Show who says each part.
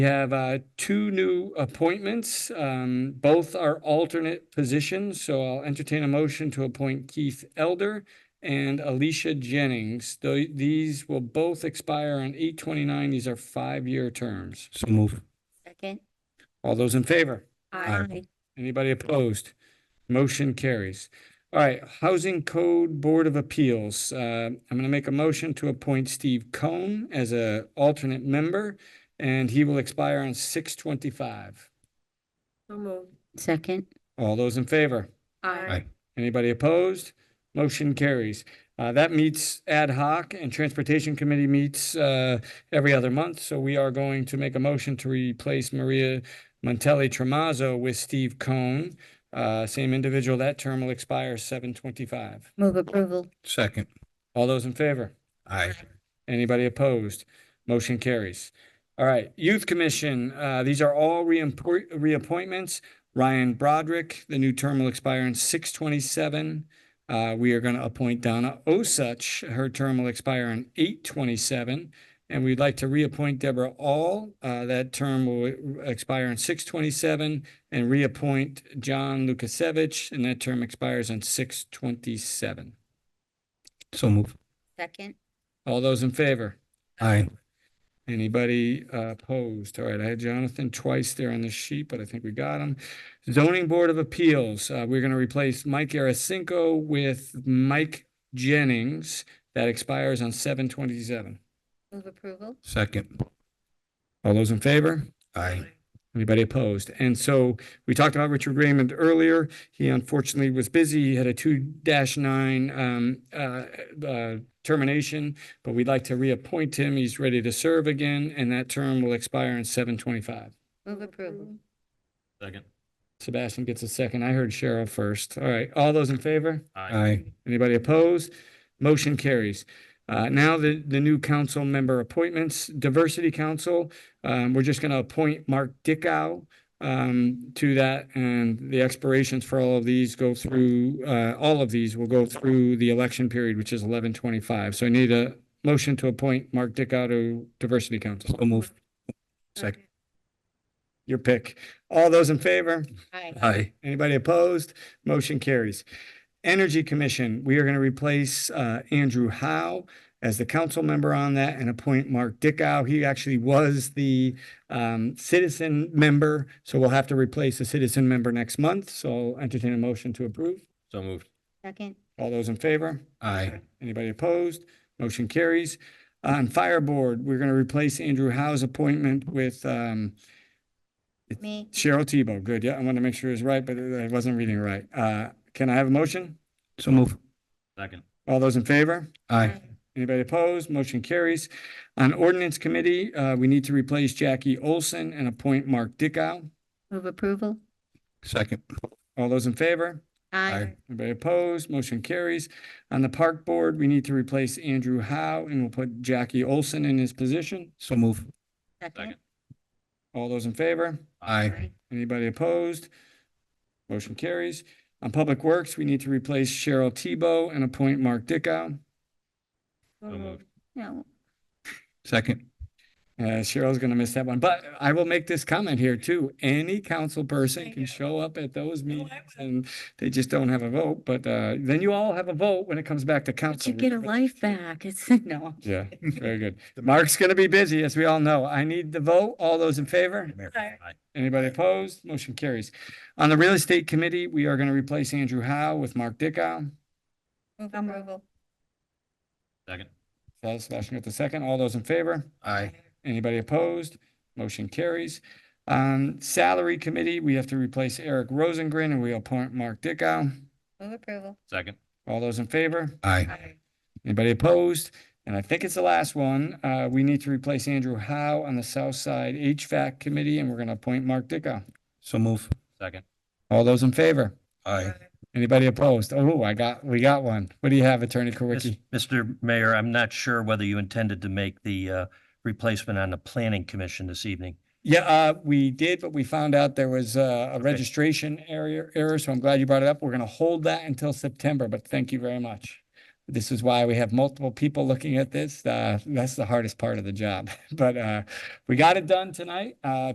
Speaker 1: We have uh, two new appointments. Um, Both are alternate positions, so I'll entertain a motion to appoint Keith Elder and Alicia Jennings. Tho- These will both expire on eight twenty-nine. These are five-year terms.
Speaker 2: So move.
Speaker 3: Second.
Speaker 1: All those in favor?
Speaker 3: Aye.
Speaker 1: Anybody opposed? Motion carries. All right, Housing Code Board of Appeals. Uh, I'm going to make a motion to appoint Steve Cohn as a alternate member, and he will expire on six twenty-five.
Speaker 4: So moved.
Speaker 3: Second.
Speaker 1: All those in favor?
Speaker 4: Aye.
Speaker 1: Anybody opposed? Motion carries. Uh, that meets ad hoc and Transportation Committee meets, uh, every other month. So we are going to make a motion to replace Maria Montelli Tremazzo with Steve Cohn. Uh, same individual. That term will expire seven twenty-five.
Speaker 3: Move approval.
Speaker 2: Second.
Speaker 1: All those in favor?
Speaker 2: Aye.
Speaker 1: Anybody opposed? Motion carries. All right, Youth Commission, uh, these are all reimpor- reappointments. Ryan Broderick, the new term will expire in six twenty-seven. Uh, we are gonna appoint Donna Osuch, her term will expire in eight twenty-seven. And we'd like to reappoint Deborah All, uh, that term will expire in six twenty-seven. And reappoint John Lukasevich, and that term expires on six twenty-seven.
Speaker 2: So move.
Speaker 3: Second.
Speaker 1: All those in favor?
Speaker 2: Aye.
Speaker 1: Anybody uh, opposed? All right, I had Jonathan twice there on the sheet, but I think we got him. Zoning Board of Appeals, uh, we're gonna replace Mike Arasinko with Mike Jennings. That expires on seven twenty-seven.
Speaker 3: Move approval.
Speaker 2: Second.
Speaker 1: All those in favor?
Speaker 2: Aye.
Speaker 1: Anybody opposed? And so we talked about Richard Raymond earlier. He unfortunately was busy. He had a two nine um uh uh termination, but we'd like to reappoint him. He's ready to serve again, and that term will expire in seven twenty-five.
Speaker 3: Move approval.
Speaker 5: Second.
Speaker 1: Sebastian gets a second. I heard Cheryl first. All right, all those in favor?
Speaker 2: Aye.
Speaker 1: Anybody opposed? Motion carries. Uh, now the, the new council member appointments, Diversity Council, um, we're just gonna appoint Mark Dickow um, to that, and the expirations for all of these go through, uh, all of these will go through the election period, which is eleven twenty-five. So I need a motion to appoint Mark Dickow to Diversity Council.
Speaker 2: So move. Second.
Speaker 1: Your pick. All those in favor?
Speaker 3: Aye.
Speaker 2: Aye.
Speaker 1: Anybody opposed? Motion carries. Energy Commission, we are going to replace uh, Andrew Howe as the council member on that and appoint Mark Dickow. He actually was the um, citizen member, so we'll have to replace the citizen member next month. So I'll entertain a motion to approve.
Speaker 5: So moved.
Speaker 3: Second.
Speaker 1: All those in favor?
Speaker 2: Aye.
Speaker 1: Anybody opposed? Motion carries. On Fire Board, we're going to replace Andrew Howe's appointment with um,
Speaker 3: Me.
Speaker 1: Cheryl Tebow. Good, yeah, I want to make sure it's right, but I wasn't reading it right. Uh, Can I have a motion?
Speaker 2: So move.
Speaker 5: Second.
Speaker 1: All those in favor?
Speaker 2: Aye.
Speaker 1: Anybody opposed? Motion carries. On ordinance committee, uh, we need to replace Jackie Olson and appoint Mark Dickow.
Speaker 3: Move approval.
Speaker 2: Second.
Speaker 1: All those in favor?
Speaker 3: Aye.
Speaker 1: Anybody opposed? Motion carries. On the park board, we need to replace Andrew Howe and we'll put Jackie Olson in his position.
Speaker 2: So move.
Speaker 3: Second.
Speaker 5: Second.
Speaker 1: All those in favor?
Speaker 2: Aye.
Speaker 1: Anybody opposed? Motion carries. On public works, we need to replace Cheryl Tebow and appoint Mark Dickow.
Speaker 5: So moved.
Speaker 3: No.
Speaker 2: Second.
Speaker 1: Uh, Cheryl's gonna miss that one, but I will make this comment here too. Any council person can show up at those meetings and they just don't have a vote, but, uh, then you all have a vote when it comes back to
Speaker 3: But
Speaker 1: council.
Speaker 3: you get a life back. It's, no.
Speaker 1: Yeah, very good. Mark's gonna be busy, as we all know. I need the vote. All those in favor?
Speaker 4: Aye.
Speaker 1: Anybody opposed? Motion carries. On the real estate committee, we are gonna replace Andrew Howe with Mark Dickow.
Speaker 3: Move approval.
Speaker 5: Second.
Speaker 1: Sebastian got the second. All those in favor?
Speaker 2: Aye.
Speaker 1: Anybody opposed? Motion carries. Um, salary committee, we have to replace Eric Rosengren and we appoint Mark Dickow.
Speaker 3: Move approval.
Speaker 5: Second.
Speaker 1: All those in favor?
Speaker 2: Aye.
Speaker 1: Anybody opposed? And I think it's the last one. Uh, we need to replace Andrew Howe on the South Side HVAC committee and we're gonna appoint Mark Dickow.
Speaker 2: So move.
Speaker 5: Second.
Speaker 1: All those in favor?
Speaker 2: Aye.
Speaker 1: Anybody opposed? Oh, I got, we got one. What do you have, Attorney Kowicki?
Speaker 6: Mr. Mayor, I'm not sure whether you intended to make the uh, replacement on the Planning Commission this evening.
Speaker 1: Yeah, uh, we did, but we found out there was uh, a registration area error, so I'm glad you brought it up. We're gonna hold that until September, but thank you very much. This is why we have multiple people looking at this. Uh, that's the hardest part of the job. But, uh, we got it done tonight. Uh,